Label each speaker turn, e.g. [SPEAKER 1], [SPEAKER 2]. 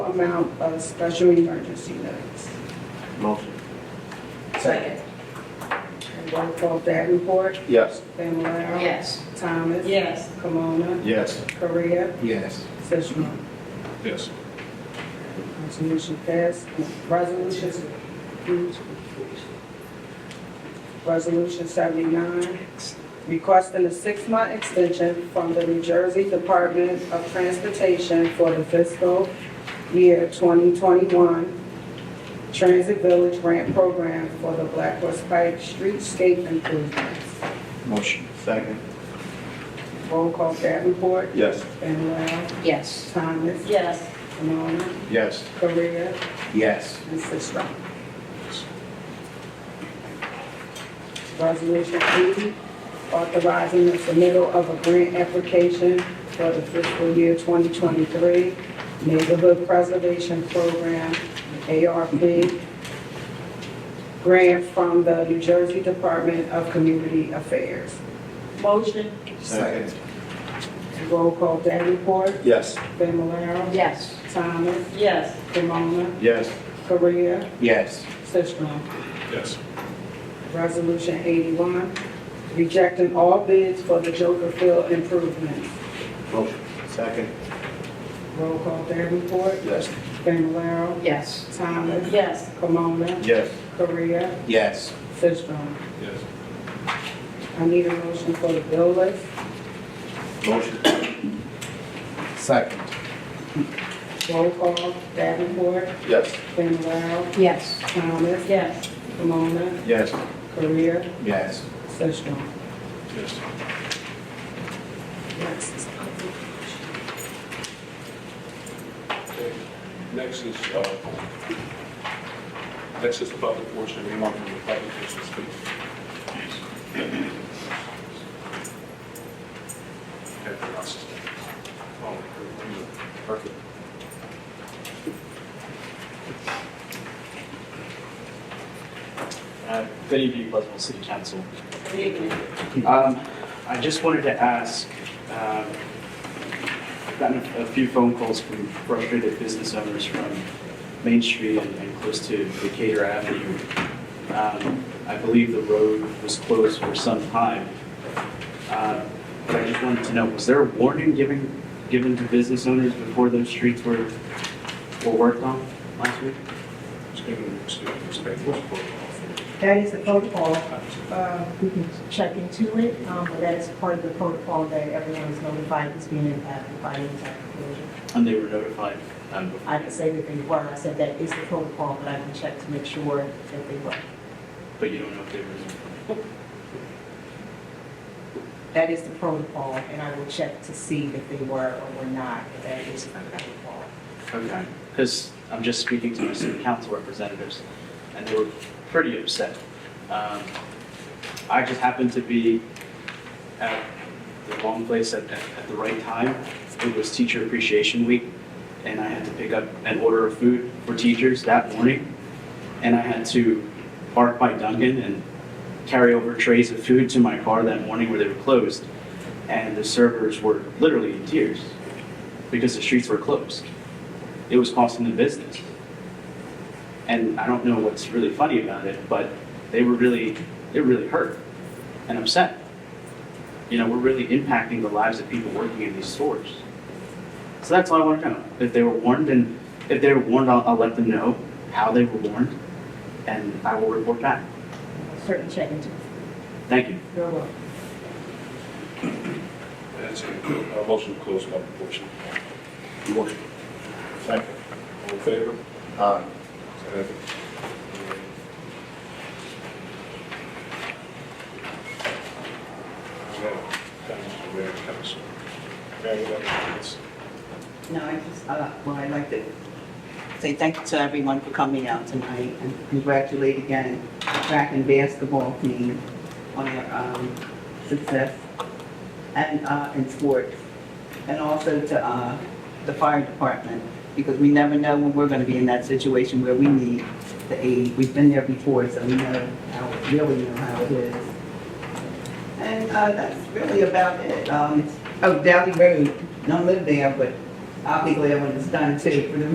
[SPEAKER 1] amount of special emergency notes.
[SPEAKER 2] Motion.
[SPEAKER 3] Second.
[SPEAKER 1] And roll call Davenport,
[SPEAKER 2] Yes.
[SPEAKER 1] Fennel,
[SPEAKER 3] Yes.
[SPEAKER 1] Thomas.
[SPEAKER 3] Yes.
[SPEAKER 1] Kimona,
[SPEAKER 2] Yes.
[SPEAKER 1] Korea,
[SPEAKER 2] Yes.
[SPEAKER 1] Sisram.
[SPEAKER 2] Yes.
[SPEAKER 1] Resolution passed. Resolution. Resolution seventy-nine, requesting a six-month extension from the New Jersey Department of Transportation for the fiscal year twenty twenty-one Transit Village Grant Program for the Black Horse Pike Streetscape Improvements.
[SPEAKER 2] Motion. Second.
[SPEAKER 1] Roll call Davenport,
[SPEAKER 2] Yes.
[SPEAKER 1] Fennel,
[SPEAKER 3] Yes.
[SPEAKER 1] Thomas,
[SPEAKER 3] Yes.
[SPEAKER 1] Camona,
[SPEAKER 2] Yes.
[SPEAKER 1] Korea,
[SPEAKER 2] Yes.
[SPEAKER 1] and Sisram. Resolution eighty, authorizing the submittal of a grant application for the fiscal year twenty twenty-three Neighborhood Preservation Program, ARP, grant from the New Jersey Department of Community Affairs.
[SPEAKER 3] Motion.
[SPEAKER 2] Second.
[SPEAKER 1] Roll call Davenport,
[SPEAKER 2] Yes.
[SPEAKER 1] Fennel,
[SPEAKER 3] Yes.
[SPEAKER 1] Thomas,
[SPEAKER 3] Yes.
[SPEAKER 1] Camona,
[SPEAKER 2] Yes.
[SPEAKER 1] Korea,
[SPEAKER 2] Yes.
[SPEAKER 1] Sisram.
[SPEAKER 2] Yes.
[SPEAKER 1] Resolution 81, rejecting all bids for the Joker Field improvements.
[SPEAKER 2] Motion. Second.
[SPEAKER 1] Roll call Davenport,
[SPEAKER 2] Yes.
[SPEAKER 1] Familar,
[SPEAKER 3] Yes.
[SPEAKER 1] Thomas,
[SPEAKER 3] Yes.
[SPEAKER 1] Camona,
[SPEAKER 2] Yes.
[SPEAKER 1] Korea,
[SPEAKER 2] Yes.
[SPEAKER 1] Sistrum.
[SPEAKER 2] Yes.
[SPEAKER 1] I need a motion for the bill list.
[SPEAKER 2] Motion. Second.
[SPEAKER 1] Roll call Davenport,
[SPEAKER 2] Yes.
[SPEAKER 1] Familar,
[SPEAKER 3] Yes.
[SPEAKER 1] Thomas,
[SPEAKER 3] Yes.
[SPEAKER 1] Camona,
[SPEAKER 2] Yes.
[SPEAKER 1] Korea,
[SPEAKER 2] Yes.
[SPEAKER 1] Sistrum.
[SPEAKER 2] Yes.
[SPEAKER 1] Next.
[SPEAKER 4] Okay. Next is, uh, next is the public portion, anyone from the public who wishes to speak. Okay, that's- oh, you- Perfect.
[SPEAKER 5] Uh, Good evening, Pleasantville City Council. Um, I just wanted to ask, um, I've gotten a a few phone calls from frustrated business owners from Main Street and and close to Decatur Avenue. Um, I believe the road was closed for some time. Uh, But I just wanted to know, was there a warning given, given to business owners before those streets were, were worked on last week?
[SPEAKER 4] Just give me- just give me respect.
[SPEAKER 6] That is the protocol. Uh, We can check into it, um, but that is part of the protocol that everyone is notified is being impacted by any type of closure.
[SPEAKER 5] And they were notified um, before?
[SPEAKER 6] I didn't say that they were, I said that is the protocol, but I can check to make sure that they were.
[SPEAKER 5] But you don't know if they were.
[SPEAKER 6] That is the protocol, and I will check to see if they were or were not, but that is the protocol.
[SPEAKER 5] Okay. Because I'm just speaking to my city council representatives, and they were pretty upset. Um, I just happened to be at the wrong place at, at at the right time. It was Teacher Appreciation Week, and I had to pick up an order of food for teachers that morning. And I had to park by Duncan and carry over trays of food to my car that morning where they were closed. And the servers were literally in tears because the streets were closed it was costing the business. And I don't know what's really funny about it, but they were really, they were really hurt and upset. You know, we're really impacting the lives of people working in these stores. So that's all I want to know. If they were warned and if they were warned, I'll, I'll let them know how they were warned and I will report back.
[SPEAKER 6] Certain check into it.
[SPEAKER 5] Thank you.
[SPEAKER 6] You're welcome.
[SPEAKER 4] That's it. Uh, Motion to close public portion.
[SPEAKER 2] Motion. Second.
[SPEAKER 4] All in favor?
[SPEAKER 2] Aye.
[SPEAKER 7] No, I just, uh, well, I'd like to say thank you to everyone for coming out tonight and congratulate again track and basketball team on their um, success and uh, in sports. And also to uh, the fire department, because we never know when we're going to be in that situation where we need the aid. We've been there before, so we know how, really know how it is. And uh, that's really about it. Um, Oh, Valley Road, don't live there, but I'll be glad when it's done too, for the